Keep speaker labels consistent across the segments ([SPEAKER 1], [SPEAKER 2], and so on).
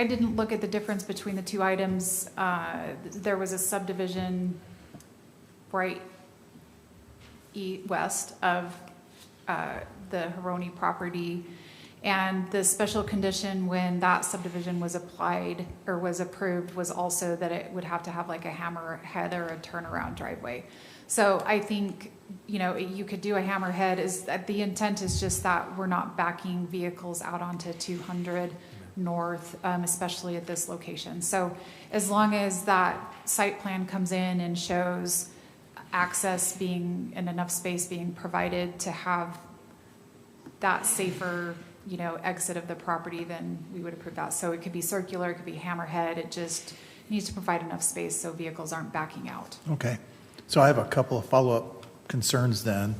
[SPEAKER 1] I didn't look at the difference between the two items. Uh, There was a subdivision right e, west of uh, the Haroni property. And the special condition when that subdivision was applied or was approved was also that it would have to have like a hammerhead or a turnaround driveway. So I think, you know, you could do a hammerhead is that the intent is just that we're not backing vehicles out onto two hundred north, um, especially at this location. So as long as that site plan comes in and shows access being and enough space being provided to have that safer, you know, exit of the property, then we would approve that. So it could be circular, it could be hammerhead, it just needs to provide enough space so vehicles aren't backing out.
[SPEAKER 2] Okay, so I have a couple of follow-up concerns then.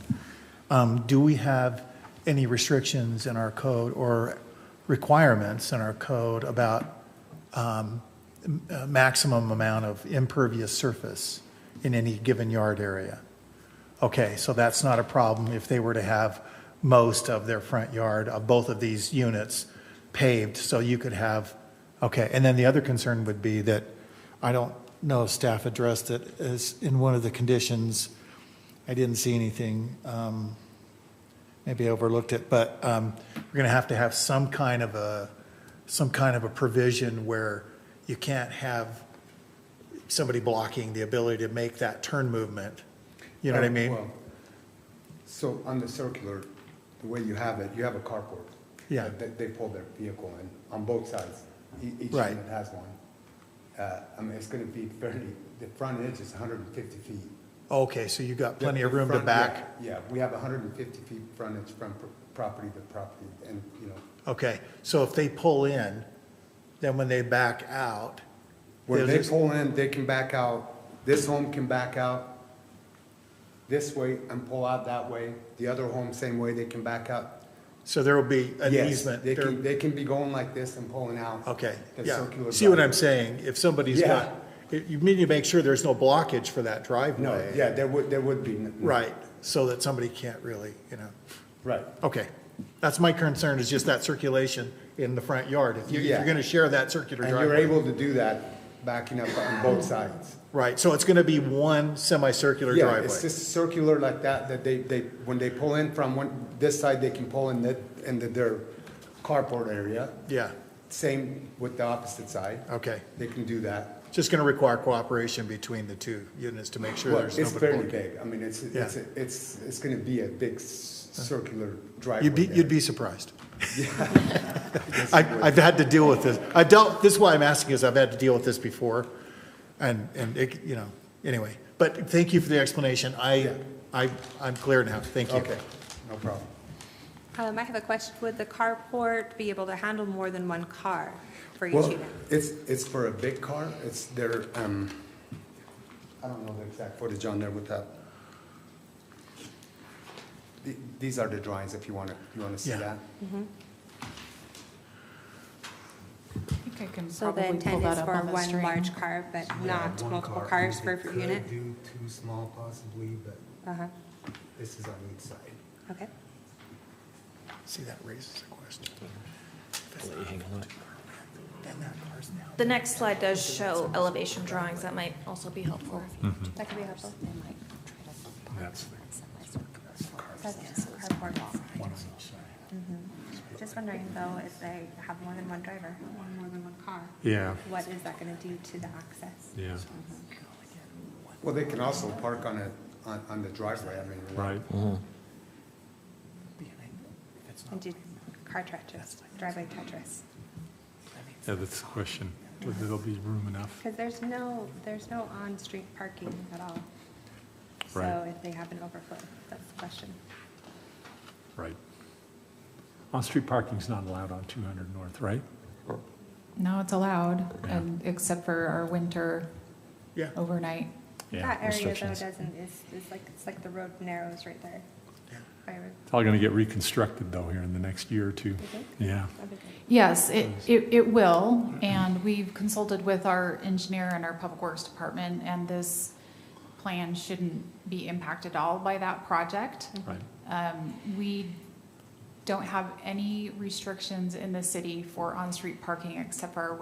[SPEAKER 2] Um, Do we have any restrictions in our code or requirements in our code about um, m- uh, maximum amount of impervious surface in any given yard area? Okay, so that's not a problem if they were to have most of their front yard of both of these units paved, so you could have, okay, and then the other concern would be that, I don't know if staff addressed it, is in one of the conditions, I didn't see anything, um, maybe I overlooked it, but um, we're going to have to have some kind of a, some kind of a provision where you can't have somebody blocking the ability to make that turn movement. You know what I
[SPEAKER 3] Oh,
[SPEAKER 2] mean?
[SPEAKER 3] well, So on the circular, the way you have it, you have a carport.
[SPEAKER 2] Yeah.
[SPEAKER 3] They, they pull their vehicle in on both sides. E- Each
[SPEAKER 2] Right.
[SPEAKER 3] unit has one. Uh, I mean, it's gonna be fairly, the front edge is hundred and fifty feet.
[SPEAKER 2] Okay, so you got plenty of
[SPEAKER 3] The
[SPEAKER 2] room to
[SPEAKER 3] front- yeah,
[SPEAKER 2] back?
[SPEAKER 3] Yeah, we have hundred and fifty feet front edge from pro- property to property and, you know,
[SPEAKER 2] Okay, so if they pull in, then when they back out,
[SPEAKER 3] where they
[SPEAKER 2] there's-
[SPEAKER 3] pull in, they can back out. This home can back out this way and pull out that way. The other home, same way, they can back out.
[SPEAKER 2] so there will be an
[SPEAKER 3] Yes,
[SPEAKER 2] easement.
[SPEAKER 3] They
[SPEAKER 2] there-
[SPEAKER 3] can, they can be going like this and pulling out.
[SPEAKER 2] Okay,
[SPEAKER 3] the
[SPEAKER 2] yeah.
[SPEAKER 3] circular
[SPEAKER 2] See what I'm
[SPEAKER 3] driveway.
[SPEAKER 2] saying? If somebody's
[SPEAKER 3] Yeah.
[SPEAKER 2] got, you- you need to make sure there's no blockage for that
[SPEAKER 3] No,
[SPEAKER 2] driveway.
[SPEAKER 3] yeah, there would, there would be. n- n-
[SPEAKER 2] Right, so that somebody can't really, you know,
[SPEAKER 3] Right.
[SPEAKER 2] okay. That's my concern, is just that circulation in the front yard. If you- if you're
[SPEAKER 3] Yeah.
[SPEAKER 2] going to share that circular
[SPEAKER 3] And you're
[SPEAKER 2] driveway.
[SPEAKER 3] able to do that backing up on both sides.
[SPEAKER 2] Right, so it's going to be one semicircular
[SPEAKER 3] Yeah, it's
[SPEAKER 2] driveway.
[SPEAKER 3] just circular like that, that they, they, when they pull in from one, this side, they can pull in that, into their carport area.
[SPEAKER 2] Yeah,
[SPEAKER 3] Same with the opposite side.
[SPEAKER 2] okay.
[SPEAKER 3] They can do that.
[SPEAKER 2] Just going to require cooperation between the two units to make sure
[SPEAKER 3] Well,
[SPEAKER 2] there's
[SPEAKER 3] it's
[SPEAKER 2] nobody.
[SPEAKER 3] fairly
[SPEAKER 2] blocking.
[SPEAKER 3] big. I mean, it's, it's,
[SPEAKER 2] Yeah. Uh-huh.
[SPEAKER 3] it's, it's gonna be a big s- circular driveway.
[SPEAKER 2] You'd be,
[SPEAKER 3] there.
[SPEAKER 2] you'd be surprised. I, I've had to deal with this. I dealt, this is why I'm asking is I've had to deal with this before. And, and it, you know, anyway, but thank you for the explanation. I,
[SPEAKER 3] Yeah.
[SPEAKER 2] I, I'm clear now. Thank you.
[SPEAKER 3] Okay, no problem.
[SPEAKER 4] Um, I have a question. Would the carport be able to handle more than one car for each
[SPEAKER 3] Well,
[SPEAKER 4] unit?
[SPEAKER 3] it's, it's for a big car, it's their, um, I don't know the exact footage on there with that. The- These are the drawings, if you wanna, you wanna see
[SPEAKER 2] Yeah.
[SPEAKER 3] that?
[SPEAKER 1] I think I can
[SPEAKER 4] So the
[SPEAKER 1] probably pull
[SPEAKER 4] intent
[SPEAKER 1] that
[SPEAKER 4] is
[SPEAKER 1] up
[SPEAKER 4] for
[SPEAKER 1] on the
[SPEAKER 4] one
[SPEAKER 1] screen.
[SPEAKER 4] large car, but not multiple cars per unit?
[SPEAKER 3] do two small possibly, but
[SPEAKER 4] Uh-huh,
[SPEAKER 3] this is on each side.
[SPEAKER 4] okay.
[SPEAKER 2] See, that raises a question.
[SPEAKER 5] The next slide does show elevation drawings, that might also be helpful.
[SPEAKER 4] That could be helpful. That's carport. Mm-hmm. Just wondering though, if they have more than one driver or more than one car,
[SPEAKER 6] Yeah,
[SPEAKER 4] what is that gonna do to the access? Mm-hmm.
[SPEAKER 6] yeah,
[SPEAKER 3] Well, they can also park on a, on, on the driveway, I mean.
[SPEAKER 6] right.
[SPEAKER 4] And do car Tetris, driveway Tetris?
[SPEAKER 6] Yeah, that's the question. Whether there'll be room enough.
[SPEAKER 4] Because there's no, there's no on-street parking at all. So
[SPEAKER 6] Right.
[SPEAKER 4] if they have an overflow, that's the question.
[SPEAKER 6] Right. On-street parking's not allowed on 200 North, right?
[SPEAKER 1] No, it's allowed, and except for our winter
[SPEAKER 2] Yeah.
[SPEAKER 1] overnight.
[SPEAKER 6] Yeah,
[SPEAKER 4] That area though
[SPEAKER 6] restrictions.
[SPEAKER 4] doesn't, is, is like, it's like the road narrows right there. I would-
[SPEAKER 6] It's all going to get reconstructed though here in the next year or two.
[SPEAKER 4] think?
[SPEAKER 6] Yeah,
[SPEAKER 4] I would think.
[SPEAKER 1] Yes, it, it, it will, and we've consulted with our engineer and our public works department, and this plan shouldn't be impacted at all by that project.
[SPEAKER 6] right.
[SPEAKER 1] Um, we don't have any restrictions in the city for on-street parking except for our